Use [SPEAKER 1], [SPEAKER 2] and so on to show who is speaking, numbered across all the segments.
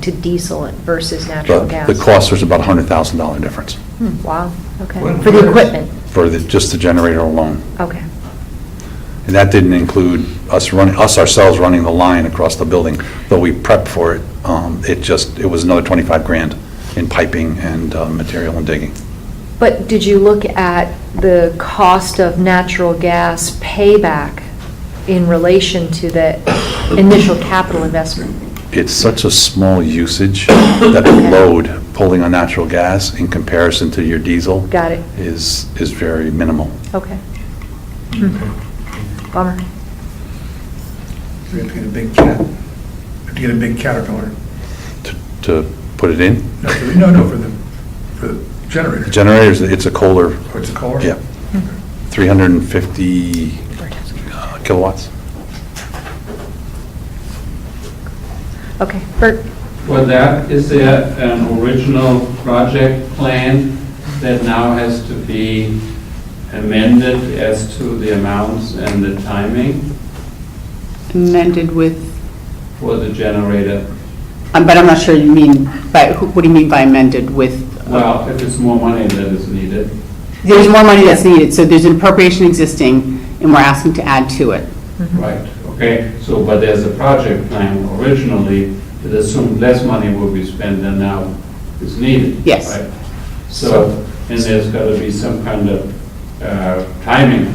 [SPEAKER 1] to diesel versus natural
[SPEAKER 2] But
[SPEAKER 1] gas?
[SPEAKER 2] the cost was about $100,000 difference
[SPEAKER 1] Hmm, Wow, okay.
[SPEAKER 3] When-
[SPEAKER 1] For the equipment?
[SPEAKER 2] for the, just the generator alone.
[SPEAKER 1] Okay,
[SPEAKER 2] And that didn't include us running, us ourselves running the line across the building, though we prepped for it. Um, It just, it was another 25 grand in piping and uh, material and digging.
[SPEAKER 1] but did you look at the cost of natural gas payback in relation to the initial capital investment?
[SPEAKER 2] It's such a small usage that the load pulling on natural gas in comparison to your diesel
[SPEAKER 1] Got it,
[SPEAKER 2] is, is very minimal.
[SPEAKER 1] okay. Hmm. Bummer.
[SPEAKER 3] We have to get a big cat, we have to get a big Caterpillar.
[SPEAKER 2] To- To put it in,
[SPEAKER 3] No, for the- No, no, for the, for the generator.
[SPEAKER 2] the generators, it's a Kohler,
[SPEAKER 3] Oh, it's a car?
[SPEAKER 2] yeah, 350 uh, kilowatts.
[SPEAKER 1] Okay, Bert,
[SPEAKER 4] For that, is there an original project plan that now has to be amended as to the amounts and the timing
[SPEAKER 5] amended with,
[SPEAKER 4] for the generator?
[SPEAKER 5] um, but I'm not sure you mean, by, who- what do you mean by amended with?
[SPEAKER 4] Well, if it's more money than is needed,
[SPEAKER 5] There's more money that's needed, so there's an appropriation existing, and we're asking to add to it.
[SPEAKER 4] right, okay? So, but there's a project plan originally that assumed less money will be spent than now is needed.
[SPEAKER 5] Yes.
[SPEAKER 4] right? So, and there's got to be some kind of uh, timing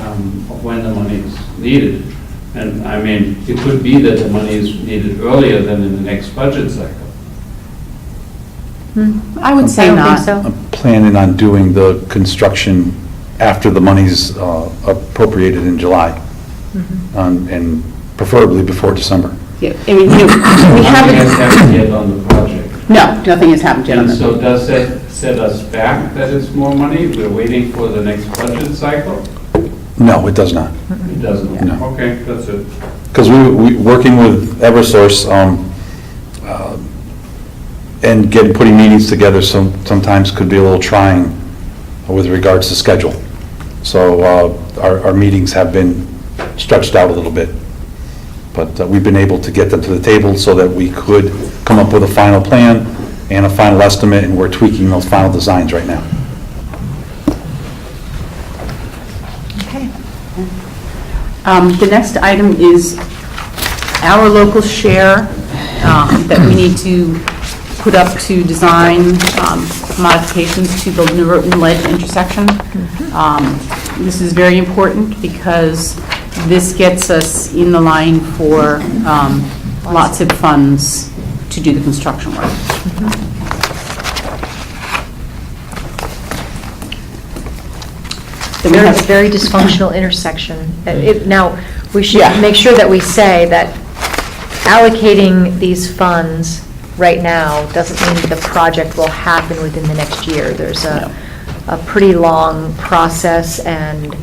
[SPEAKER 4] um, of when the money is needed. And I mean, it could be that the money is needed earlier than in the next budget cycle.
[SPEAKER 5] I would
[SPEAKER 1] I
[SPEAKER 5] say
[SPEAKER 1] don't
[SPEAKER 5] not.
[SPEAKER 1] think so.
[SPEAKER 2] I'm planning on doing the construction after the money's uh, appropriated in July, Um, and preferably before December.
[SPEAKER 5] Yeah, I mean, you know, we
[SPEAKER 4] Nothing has
[SPEAKER 5] haven't,
[SPEAKER 4] happened yet on the project.
[SPEAKER 5] no, nothing has happened yet on
[SPEAKER 4] And
[SPEAKER 5] this.
[SPEAKER 4] so does that set us back that it's more money? We're waiting for the next budget cycle?
[SPEAKER 2] No, it does not.
[SPEAKER 4] It doesn't?
[SPEAKER 2] No.
[SPEAKER 4] Okay, that's it.
[SPEAKER 2] Because we, we, working with Eversource, um, uh, and getting, putting meetings together some, sometimes could be a little trying with regards to schedule. So, uh, our, our meetings have been stretched out a little bit. But uh, we've been able to get them to the table so that we could come up with a final plan and a final estimate, and we're tweaking those final designs right now.
[SPEAKER 1] Okay.
[SPEAKER 5] Um, The next item is our local share um, that we need to put up to design um, modifications to the New Roten Ledge intersection. Um, This is very important because this gets us in the line for um, lots of funds to do the construction work. Then we
[SPEAKER 1] Very,
[SPEAKER 5] have-
[SPEAKER 1] very dysfunctional intersection. It- Now, we should
[SPEAKER 5] Yeah.
[SPEAKER 1] make sure that we say that allocating these funds right now doesn't mean that the project will happen within the next year. There's a, a pretty long process and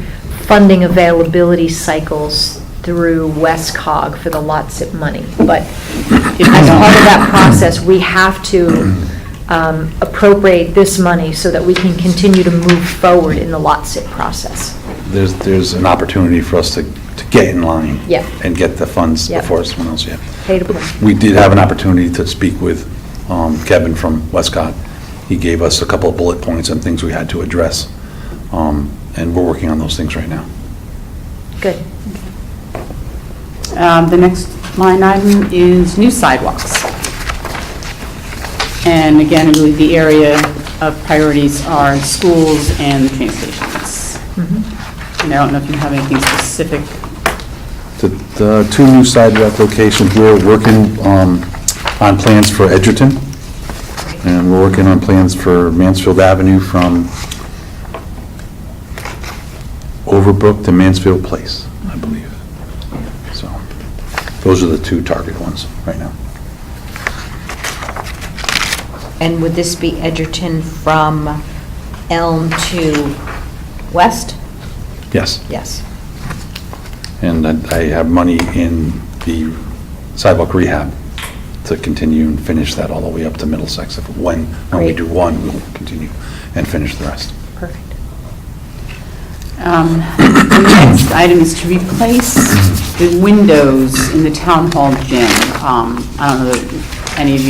[SPEAKER 1] funding availability cycles through WestCog for the LOTSIP money. But as part of that process, we have to um, appropriate this money so that we can continue to move forward in the LOTSIP process.
[SPEAKER 2] There's, there's an opportunity for us to, to get in line.
[SPEAKER 1] Yeah.
[SPEAKER 2] And get the funds
[SPEAKER 1] Yeah.
[SPEAKER 2] before someone else, yeah.
[SPEAKER 1] Pay to play.
[SPEAKER 2] We did have an opportunity to speak with um, Kevin from Westcott. He gave us a couple of bullet points and things we had to address, um, and we're working on those things right now.
[SPEAKER 1] Good.
[SPEAKER 5] Um, The next line item is new sidewalks. And again, I believe the area of priorities are schools and the train stations. And I don't know if you have anything specific.
[SPEAKER 2] The- The two new sidewalk locations, we're working um, on plans for Edgerton, and we're working on plans for Mansfield Avenue from Overbrook to Mansfield Place, I believe. So, those are the two target ones right now.
[SPEAKER 6] And would this be Edgerton from Elm to West?
[SPEAKER 2] Yes.
[SPEAKER 6] Yes.
[SPEAKER 2] And I I have money in the sidewalk rehab to continue and finish that all the way up to Middlesex. If When, when we
[SPEAKER 6] Great.
[SPEAKER 2] do one, we'll continue and finish the rest.
[SPEAKER 6] Perfect.
[SPEAKER 5] Um, The next item is to replace the windows in the town hall gym. Um, I don't know if any of you